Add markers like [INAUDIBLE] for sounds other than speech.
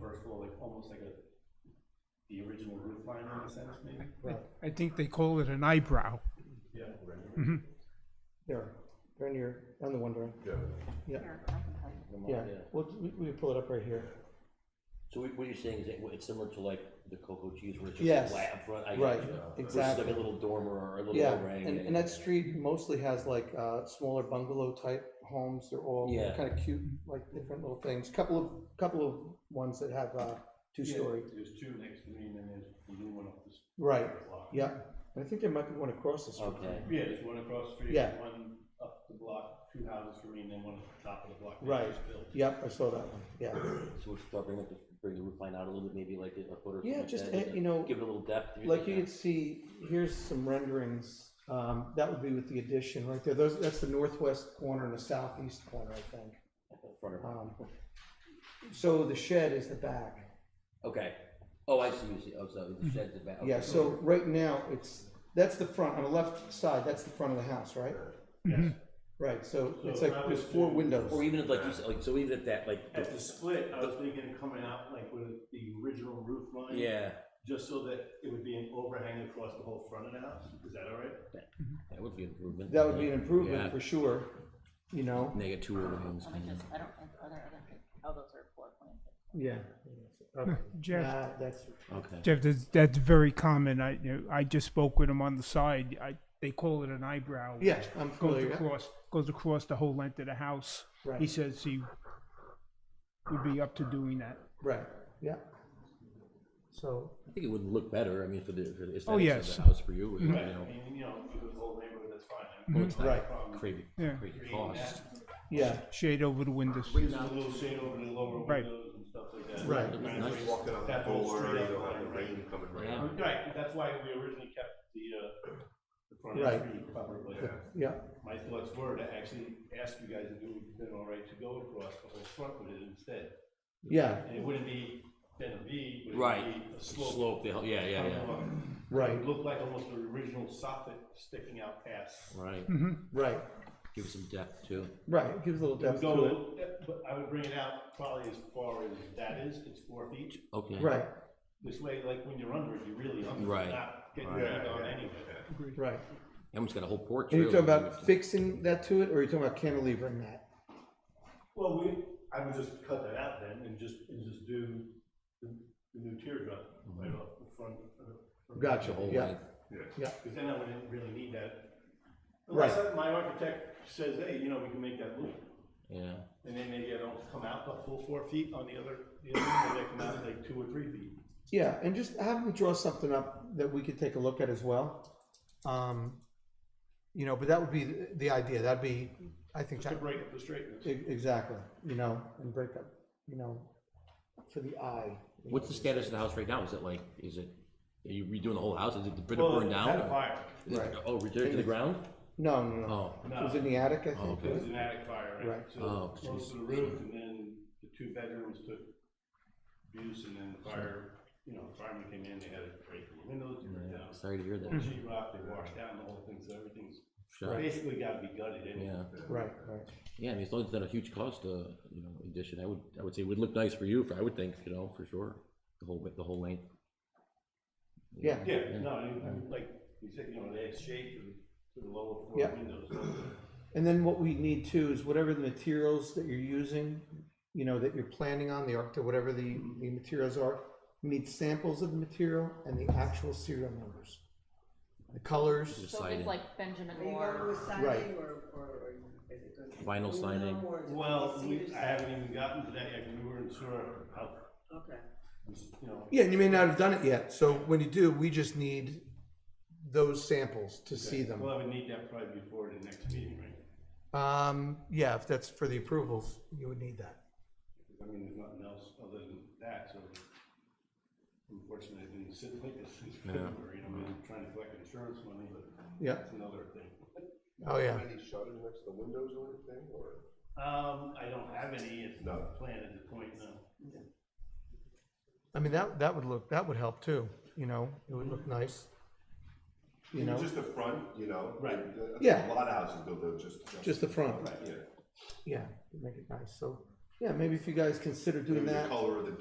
first floor, like, almost like a, the original roof line in a sense, maybe? I think they call it an eyebrow. Yeah. There, they're on your, on the window. Yeah. Yeah, Here, I can tell you. yeah, Yeah. we'll, we, we can pull it up right here. So what what you're saying is that it's similar to like the Coco Cheese where it's Yes. just flat up front? I Right, gotcha. Versus exactly. like a little dormer or a little Yeah, meringue and, and that street mostly has like, uh, smaller bungalow type homes, they're all Yeah. kind of cute, like different little things. Couple of, couple of ones that have, uh, two-story, There's two next to me, and then there's the new one up this right, block. yeah, and I think there might be one across the street. Okay. Yeah, there's one across the street, Yeah. one up the block, two houses for me, and then one at the top of the block. that Right. just built. Yep, I saw that one, yeah, So we should start bringing up the, bring the roof line out a little bit, maybe like a foot or. yeah, something just, like eh, that, uh, you know, Give it a little depth. like you could see, here's some renderings, um, that would be with the addition right there, those, that's the northwest corner and the southeast corner, I think. Front of- Um, So the shed is the back. Okay. Oh, I see, you see, oh, so the shed's the back. Mm-hmm. Yeah, okay. so right now, it's, that's the front, on the left side, that's the front of the house, right? Mm-hmm. Yes. Right, so So it's if like, I there's was four to- windows. Or even if, like you said, like, so even if that, like, At the split, I was thinking of coming out like with the original roof line. yeah, Just so that it would be an overhang across the whole front of the house, is that all right? that would be an improvement. That would be an Yeah. improvement for sure, you know? Negative two overhangs. Let me just, I don't, are there other, oh, those are floor plans. Yeah. [LAUGHS] Jeff, Nah, That's, Okay. Jeff, that's, that's very common. I, you know, I just spoke with him on the side. I, they call it an eyebrow. yeah, I'm Goes familiar. across, goes across the whole length of the house. He Right, says he would be up to doing that. right, yeah. So, I think it would look better, I mean, for the, for the Oh, aesthetics yes. of the house for you, Mm-hmm. you Right, I know, mean, you know, for the whole neighborhood, that's fine. I mean, it's Right. not crazy, Yeah. Mm-hmm. crazy creating cost. that, yeah, Shade over the windows. Brings a little shade over the lower Right. windows and stuff like that. Right. Kind of Nice. brings Walking on the that whole floor, street up you'll have the behind, right? rain coming right Yeah. out. Right, that's why we originally kept the, uh, the front of Right. the street covered, but yeah, my thoughts were to actually ask you guys if it would have been all right to go across the whole front with it instead. yeah, And it wouldn't be then a V, but it Right. would be a slope. Slope, the hell- yeah, yeah, Uh-huh. yeah, It right, would look like almost the original soffit sticking out past. right, right, give it some depth too. right, it gives a little It would depth to go, it. but I would bring it out probably as far as that is, it's four feet. Okay. Right, This way, like when you're under it, you're really under, Right. it, not getting Right. right. on Yeah. anyway. right. Almost got a whole porch. And you're talking really. about fixing that to it, or you're talking about cantilevering that? Well, we, I would just cut that out then and just, and just do the, the new teardrop Mm-hmm. right off the front. Gotcha, The whole yeah, length. Because then I wouldn't really need that. Unless I- my architect says, hey, you know, we can make that loop. Yeah, And then maybe I don't come out the full four feet on the other, the other one, maybe I come out like two or three feet. yeah, and just have them draw something up that we could take a look at as well. Um, you know, but that would be the- the idea, that'd be, I think, Just to that, break up the straightness. e- exactly, you know, and break up, you know, for the eye. you what's know. the status of the house right now, is it like, is it, are you redoing the whole house, is it the bit Well, burned it Had a down? fire, Is it- Right. Oh, returned to the ground? No, no, no, Oh, it was no, in the attic, I Oh, think, it was right? an attic fire, right? Right. Oh, So close to the roof and then the two bedrooms took abuse and then the fire, you know, the firemen came in, they had to break the windows, they ripped down. sorry to hear that, Sheet rock, they washed down the whole thing, so everything's Sure. basically gotta be gutted anyway. yeah, right, right, yeah, I mean, it's only not a huge cost, uh, you know, addition, I would, I would say it would look nice for you, I would think, you know, for sure, the whole, bit, the whole length. yeah, Yeah, no, and- and like you said, you know, they had shade to the, to the lower floor Yeah. windows. and then what we need too is whatever the materials that you're using, you know, that you're planning on, the architect, whatever the, the materials are, we need samples of the material and the actual serial numbers. The colors, Just So if siding. it's like Benjamin Are you going Moore, with siding or, or or is it going to? be Vinyl aluminum siding. or is it Well, cedar we, I siding? haven't even gotten to that yet, 'cause we weren't sure how, Okay, you know, Yeah, and you may not have done it yet. So when you do, we just need those samples to see them. Well, I would need that probably before the next meeting, right? Um, yeah, if that's for the approvals, you would need that. I mean, there's nothing else other than that, so unfortunately, I've been sitting like this since February, you know, I've been trying to collect insurance money, but Yeah. that's another thing. Oh, yeah. Any shutters next to the windows or anything, or? Um, I don't have any, it's No. not planned at the point, no. I mean, that, that would look, that would help too, you know, it would look nice. You know, Just the front, you know? Right. Uh, Yeah. A lot of houses do though, just. just the front. Yeah. Yeah, make it nice. So, yeah, maybe if you guys consider doing Maybe the that. color of the